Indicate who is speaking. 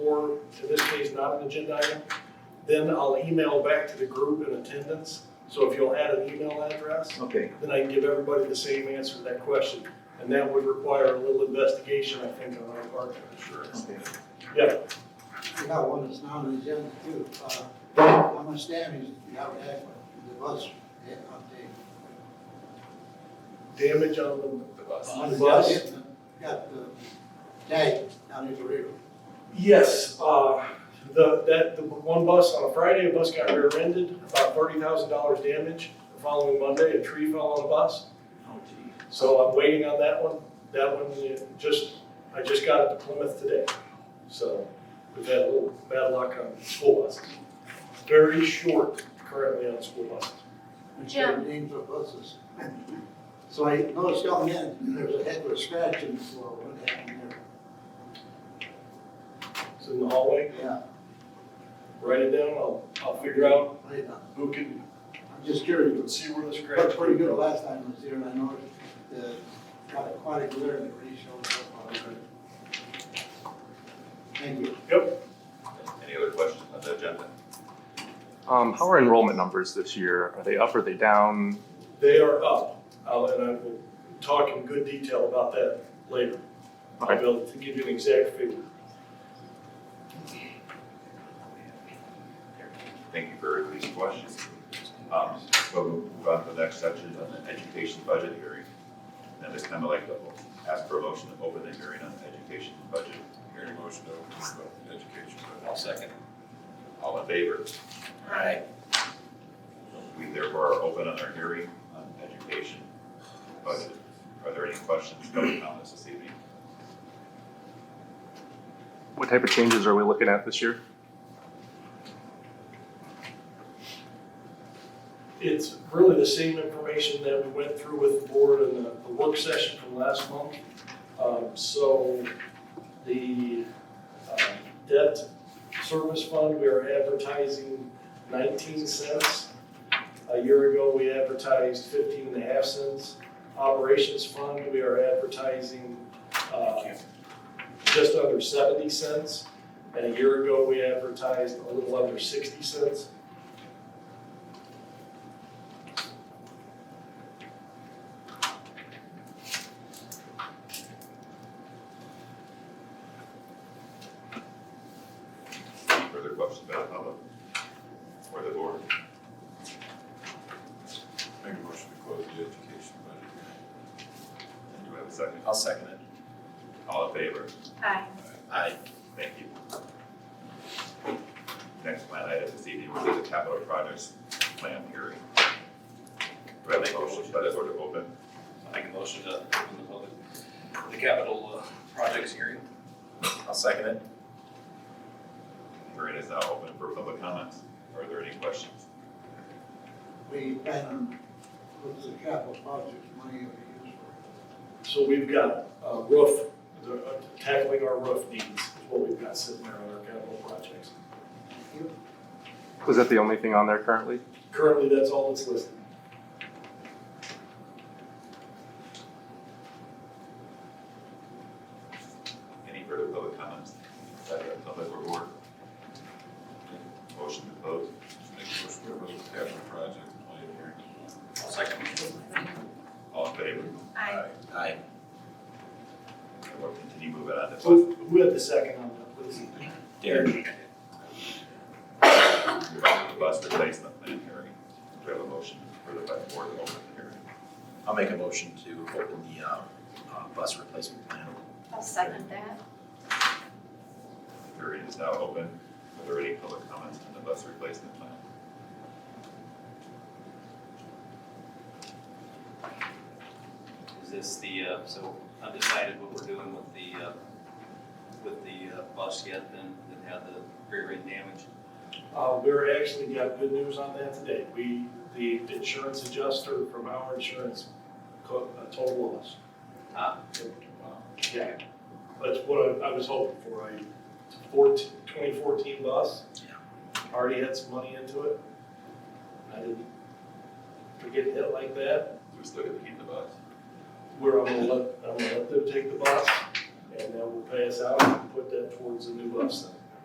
Speaker 1: to this case not an agenda item, then I'll email back to the group in attendance. So if you'll add an email address,
Speaker 2: Okay,
Speaker 1: then I can give everybody the same answer to that question. And that would require a little investigation, I think, on our part, I'm sure.
Speaker 2: okay.
Speaker 1: Yeah,
Speaker 3: We got one that's not on the agenda too. Uh, How much damage did you have had with the bus hit on the?
Speaker 1: damage on the,
Speaker 4: the bus.
Speaker 3: on the
Speaker 1: Bus?
Speaker 3: hit, and Got the tag down in the river.
Speaker 1: yes, uh, the, that, the one bus, on a Friday, a bus got rear-ended, about thirty thousand dollars damage. The following Monday, a tree fell on a bus,
Speaker 3: Oh, gee.
Speaker 1: so I'm waiting on that one. That one, it just, I just got it to Plymouth today, so we've had a little bad luck on school buses. Very short currently on school buses.
Speaker 5: Jim.
Speaker 3: Names of buses. So I noticed y'all men, there was a head with a scratch in the floor, what happened there?
Speaker 1: It's in the hallway,
Speaker 3: Yeah,
Speaker 1: write it down, I'll, I'll figure out
Speaker 3: I don't know.
Speaker 1: who can,
Speaker 3: I'm just curious.
Speaker 1: can see where the scratch.
Speaker 3: Looked pretty good last time I was here, and I noticed the, got a- quite a glare that really showed up on it. Thank you.
Speaker 4: Any other questions on the agenda?
Speaker 6: Um, how are enrollment numbers this year? Are they up? Are they down?
Speaker 1: They are up, I'll- and I will talk in good detail about that later. I'll be able to give you an exact figure.
Speaker 4: Thank you for these questions. Um, so we'll move on to the next section on the education budget hearing. And this time I'd like to ask for a motion to open the hearing on the education budget. Hearing motion to open the education budget. I'll second. All in favor?
Speaker 5: Aye.
Speaker 4: We therefore are open on our hearing on education budget. Are there any questions, comments on this this evening?
Speaker 6: What type of changes are we looking at this year?
Speaker 1: It's really the same information that we went through with the board in the, the work session from last month. Um, so the, uh, debt service fund, we are advertising nineteen cents. A year ago, we advertised fifteen and a half cents. Operations fund, we are advertising, uh, just under seventy cents. And a year ago, we advertised a little under sixty cents.
Speaker 4: Any further questions by the public or the board?
Speaker 7: Make a motion to close the education budget hearing.
Speaker 4: And do I have a second?
Speaker 7: I'll second it.
Speaker 4: All in favor?
Speaker 5: Aye.
Speaker 7: Aye.
Speaker 4: Thank you. Next plan item this evening will be the capital projects plan hearing. Do I have a motion by the board to open?
Speaker 7: Make a motion to open the public, the capital uh, projects hearing. I'll second it.
Speaker 4: Hearing is now open for public comments. Are there any questions?
Speaker 3: We plan on, what's the capital project money we use for?
Speaker 1: So we've got uh, roof, the- uh, tackling our roof needs is what we've got sitting there on our capital projects.
Speaker 6: Was that the only thing on there currently?
Speaker 1: Currently, that's all that's listed.
Speaker 4: Any further public comments? By the public or board? Motion to close.
Speaker 7: Make a motion to close the capital project plan hearing. I'll second it.
Speaker 4: All in favor?
Speaker 5: Aye.
Speaker 7: Aye.
Speaker 4: And we'll continue moving on to.
Speaker 1: Who who had the second on that, please?
Speaker 7: Derek.
Speaker 4: The bus replacement plan hearing. Do I have a motion for the board to open the hearing?
Speaker 7: I'll make a motion to open the, uh, uh, bus replacement plan.
Speaker 5: I'll second that.
Speaker 4: Hearing is now open. Are there any public comments on the bus replacement plan?
Speaker 8: Is this the, uh, so I've decided what we're doing with the, uh, with the uh, bus yet then that had the rear end damage?
Speaker 1: Uh, We're actually got good news on that today. We, the insurance adjuster from our insurance co- uh, told us.
Speaker 8: Ah.
Speaker 1: Yeah, that's what I I was hoping for. I, fourteen- 2014 bus, already had some money into it. I didn't forget hit like that.
Speaker 4: We still gonna keep the bus?
Speaker 1: Where I'm gonna let, I'm gonna let them take the bus, and then we'll pay us out and put that towards the new bus center.